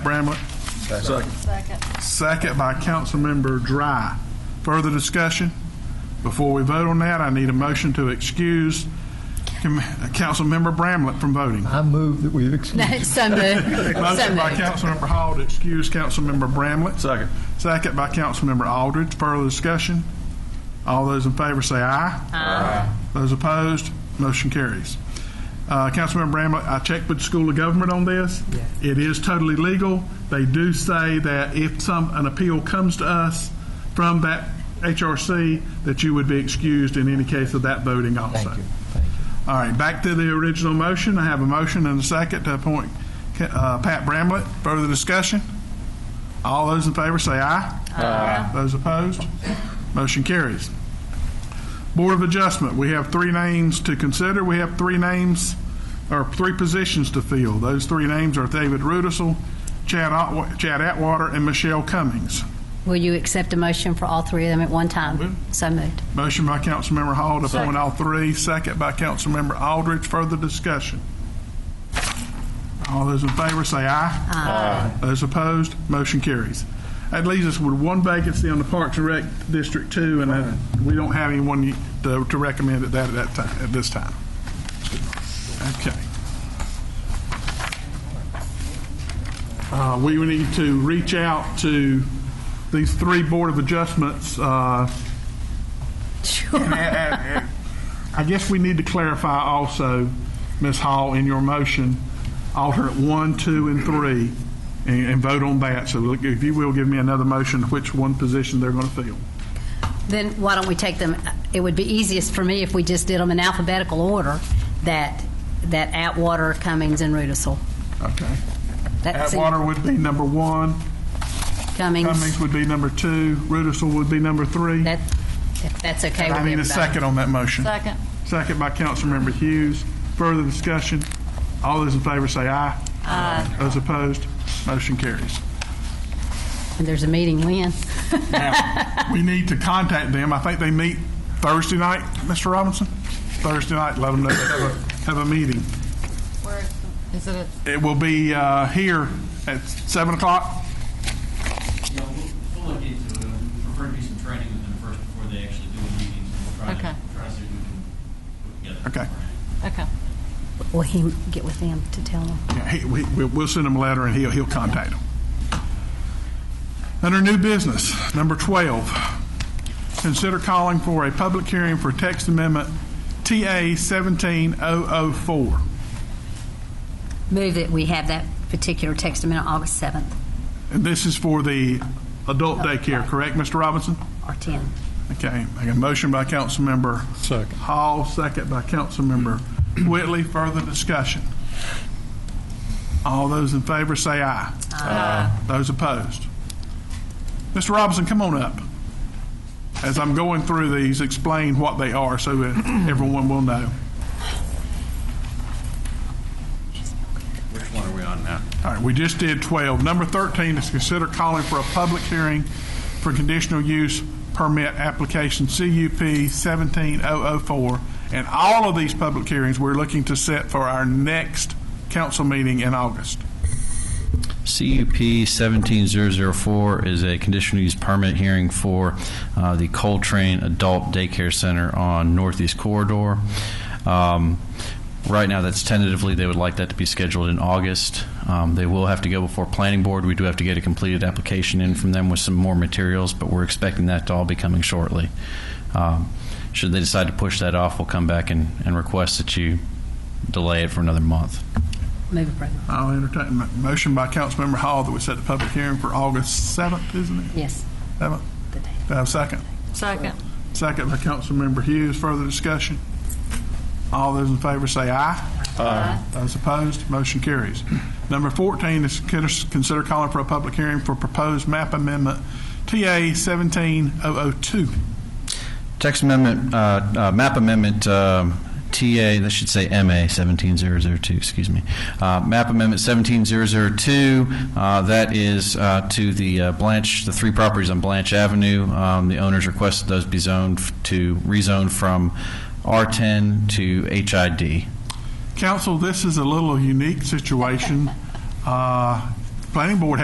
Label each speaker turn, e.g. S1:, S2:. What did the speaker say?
S1: Bramlett. Second.
S2: Second.
S1: Second by Councilmember Dry. Further discussion? Before we vote on that, I need a motion to excuse Com- Councilmember Bramlett from voting.
S3: I move that we excuse.
S2: So moved. So
S1: Motion by
S2: moved.
S1: Councilmember Hall to excuse Councilmember Bramlett. Second. Second by Councilmember Aldridge. Further discussion? All those in favor say aye. Aye. Those opposed, motion carries. Uh, Councilmember Bramlett, I checked with the School of Government on this. It is totally legal. They do say that if some, an appeal comes to us from that HRC, that you would be excused in any case of that voting also.
S3: Thank you, thank you.
S1: All right, back to the original motion. I have a motion and a second to appoint uh, Pat Bramlett. Further discussion? All those in favor say aye. Aye. Those opposed? Motion carries. Board of Adjustment, we have three names to consider. We have three names, or three positions to fill. Those three names are David Rudisell, Chad Otwa- Chad Atwater, and Michelle Cummings.
S2: Will you accept a motion for all three of them at one time? So moved.
S1: Motion by Councilmember Hall to appoint all three, second by Councilmember Aldridge. Further discussion? All those in favor say aye. Aye. Those opposed, motion carries. That leaves us with one vacancy on the Parks and Rec District Two, and uh, we don't have anyone to to recommend at that, at that time, at this time. Okay. Uh, We would need to reach out to these three Board of Adjustments, uh, I guess we need to clarify also, Ms. Hall, in your motion, alternate one, two, and three, and, and vote on that. So look, if you will, give me another motion, which one position they're going to fill.
S2: Then why don't we take them, it would be easiest for me if we just did them in alphabetical order, that, that Atwater, Cummings, and Rudisill.
S1: Okay.
S2: That seems-
S1: Atwater would be number one, Cummings
S2: Cummings,
S1: would be number two, Rudisell would be number three.
S2: that, if that's okay with
S1: I need
S2: everybody.
S1: a second on that motion. Second. Second by Councilmember Hughes. Further discussion? All those in favor say aye. Aye. Those opposed, motion carries.
S2: And there's a meeting when?
S1: Now, we need to contact them. I think they meet Thursday night, Mr. Robinson? Thursday night, let them know they have a, have a meeting.
S4: Where is it?
S1: It will be uh, here at 7 o'clock.
S5: Yeah, we'll, we'll look into it. We prefer to do some training with them first before they actually do a meeting. We'll try
S4: Okay.
S5: to, try to see if we can put together.
S1: Okay.
S4: Okay.
S2: Will he get with them to tell them?
S1: Yeah, he- we- we- We'll send him a letter and he'll, he'll contact them. Under new business, number 12, consider calling for a public hearing for text amendment TA 17004.
S2: Move that we have that particular text amendment August 7th
S1: And this is for the adult daycare, correct, Mr. Robinson?
S2: or 10th.
S1: Okay, I got a motion by Councilmember
S3: Second.
S1: Hall, second by Councilmember Whitley. Further discussion? All those in favor say aye. Aye. Those opposed? Mr. Robinson, come on up. As I'm going through these, explain what they are so that everyone will know.
S5: Which one are we on now?
S1: All right, we just did 12. Number 13 is consider calling for a public hearing for conditional use permit application CUP 17004. And all of these public hearings, we're looking to set for our next council meeting in August.
S6: CUP 17004 is a conditional use permit hearing for uh, the Coltrane Adult Daycare Center on Northeast Corridor. Um, Right now, that's tentatively, they would like that to be scheduled in August. Um, They will have to go before Planning Board. We do have to get a completed application in from them with some more materials, but we're expecting that to all be coming shortly. Um, Should they decide to push that off, we'll come back and and request that you delay it for another month.
S2: Move approval.
S1: I'll entertain a motion by Councilmember Hall that we set the public hearing for August 7th, isn't it?
S2: Yes,
S1: 7th?
S2: the day.
S1: Do I have a second?
S4: Second.
S1: Second by Councilmember Hughes. Further discussion? All those in favor say aye. Aye. Those opposed, motion carries. Number 14 is consider- consider calling for a public hearing for proposed map amendment TA 17002.
S6: Text amendment, uh, uh, map amendment, um, TA, that should say MA 17002, excuse me. Uh, Map amendment 17002, uh, that is uh, to the uh, Blanche, the three properties on Blanche Avenue. Um, The owners requested those be zoned f- to, rezoned from R10 to HID.
S1: Council, this is a little unique situation. Uh, Planning Board